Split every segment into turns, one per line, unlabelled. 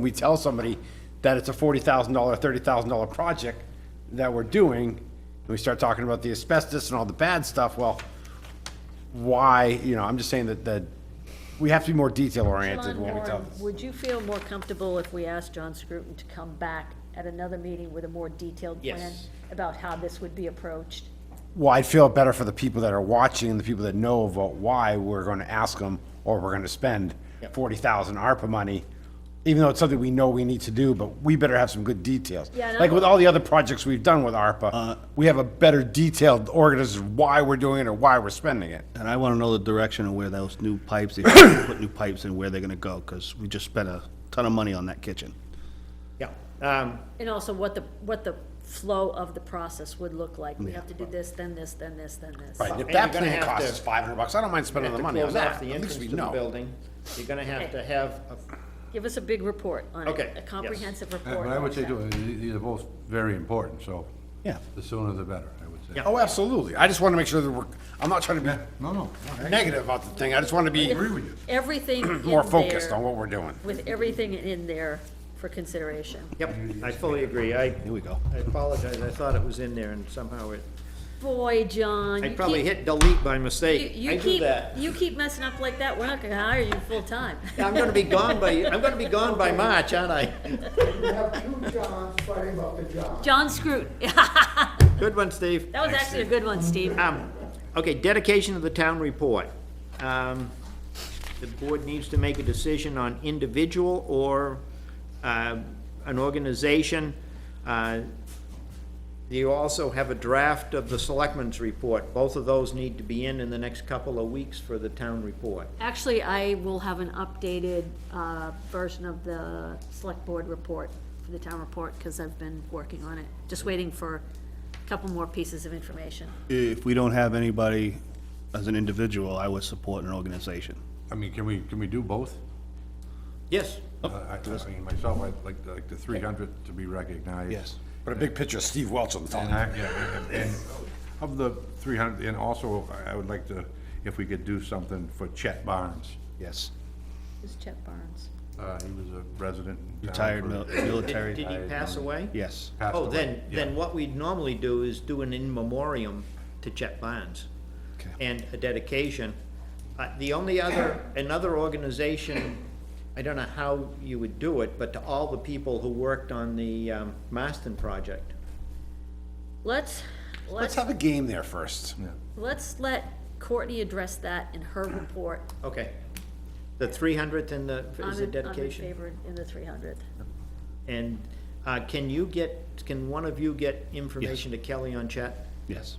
we tell somebody that it's a forty thousand dollar, thirty thousand dollar project that we're doing, and we start talking about the asbestos and all the bad stuff, well, why, you know, I'm just saying that, that we have to be more detail oriented
John
when we tell
Warren,
this.
would you feel more comfortable if we asked John Scruton to come back at another meeting with a more detailed plan
Yes.
about how this would be approached?
Well, I'd feel better for the people that are watching and the people that know about why we're gonna ask them, or we're gonna spend
Yep.
forty thousand ARPA money, even though it's something we know we need to do, but we better have some good details.
Yeah, and
Like
I'm-
with all the other projects we've done with ARPA, we have a better detailed organization why we're doing it or why we're spending it.
And I want to know the direction of where those new pipes, if you're gonna put new pipes in, where they're going to go, because we just spent a ton of money on that kitchen.
Yeah, um,
And also what the, what the flow of the process would look like. We have to do this, then this, then this, then this.
Right, and if
And
that
you're gonna
plan
have
costs us
to-
five hundred bucks, I don't mind
you
spending the
have to
money on
close off
that,
the
at
entrance
least we
to the
know.
building. You're gonna have to have, a-
Give us a big report on it,
Okay,
a
yes.
comprehensive
Uh,
report.
But I would
on
say,
that.
too, uh, these these are both very important, so.
Yeah.
The sooner the better, I would say.
Yeah.
Oh, absolutely, I just wanna make sure that we're, I'm not trying to
No, no.
be negative about the thing, I just wanna be
with you.
Everything in
more focused
there-
on what we're doing.
With everything in there for consideration.
yep, I fully agree, I,
Here we go.
I apologize, I thought it was in there and somehow it,
Boy, John,
I
you
probably
keep,
hit delete by
you
mistake. I
you
do
keep,
that.
you keep messing up like that, we're not gonna hire you full-time.
I'm gonna be gone by, I'm gonna be gone by March, aren't I?
John Scruton, that
Good one, Steve.
was actually a good one, Steve.
Um, okay, dedication of the town report. Um, the board needs to make a decision on individual or, uh, an organization. Uh, You also have a draft of the selectmen's report. Both of those need to be in in the next couple of weeks for the town report.
Actually, I will have an updated, uh, version of the select board report, for the town report, because I've been working on it, just waiting for a couple more pieces of information.
If we don't have anybody as an individual, I would support an organization.
I mean, can we, can we do both?
Yes.
Uh,
Oh.
I, I mean, myself, I'd like, like the three hundred to be recognized.
Yes.
But a big picture of Steve Welch on the top.
And I, yeah, and- and of the three hundred, and also, I I would like to, if we could do something for Chet Barnes.
Yes.
This is Chet Barnes.
Uh, he was a resident. in town
Retired
for-
mil-
Did
military.
did he pass away?
Yes.
passed
Oh,
away.
then,
Yeah.
then what we'd normally do is do an in memoriam to Chet Barnes
Okay.
and a dedication. Uh, The only other, another organization, I don't know how you would do it, but to all the people who worked on the um, Marston project.
Let's,
Let's
let's,
have a game there first.
let's let Courtney address that in her report.
Okay. The three hundredth and the,
I'm
is
in-
the
I'm in
dedication?
favor in the three hundredth.
And uh, can you get, can one of you get information to Kelly on Chet?
Yes.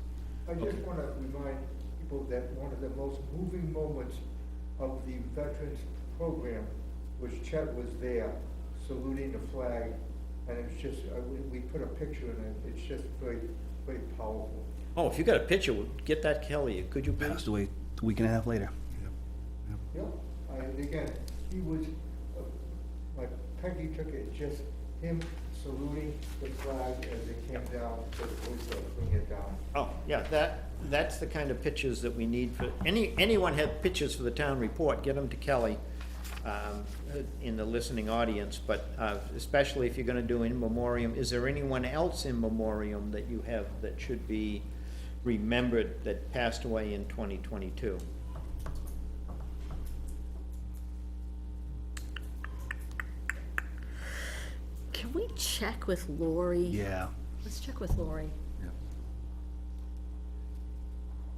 I just want to remind people that one of the most moving moments of the veterans program was Chet was there saluting the flag, and it's just, I- we- we put a picture in it, it's just very, very powerful.
Oh, if you got a picture, get that Kelly, could you please?
Passed away a week and a half later.
Yep, I- and again, he was, uh, like Peggy took it, just him saluting the flag as it came down, so the police would bring it down.
Oh, yeah, that, that's the kind of pictures that we need for, any, anyone have pictures for the town report, get them to Kelly um, in the listening audience, but uh, especially if you're gonna do in memoriam, is there anyone else in memoriam that you have that should be remembered that passed away in twenty twenty-two?
Can we check with Lori?
Yeah.
Let's check with Lori.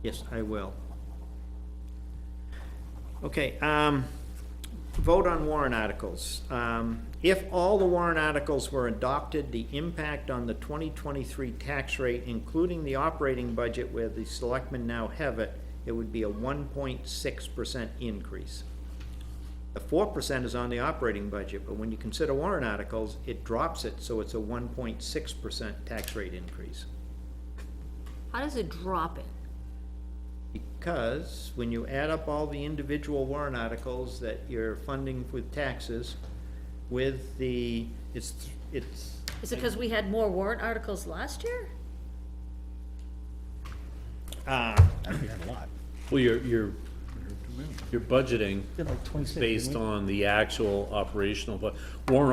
Yes, I will. Okay, um, vote on warrant articles. Um, if all the warrant articles were adopted, the impact on the twenty twenty-three tax rate, including the operating budget where the selectmen now have it, it would be a one point six percent increase. The four percent is on the operating budget, but when you consider warrant articles, it drops it, so it's a one point six percent tax rate increase.
How does it drop it?
Because when you add up all the individual warrant articles that you're funding with taxes, with the, it's, it's,
Is it because we had more warrant articles last year?
uh,
We had a lot.
Well, you're, you're, you're budgeting based on the actual operational, but warrant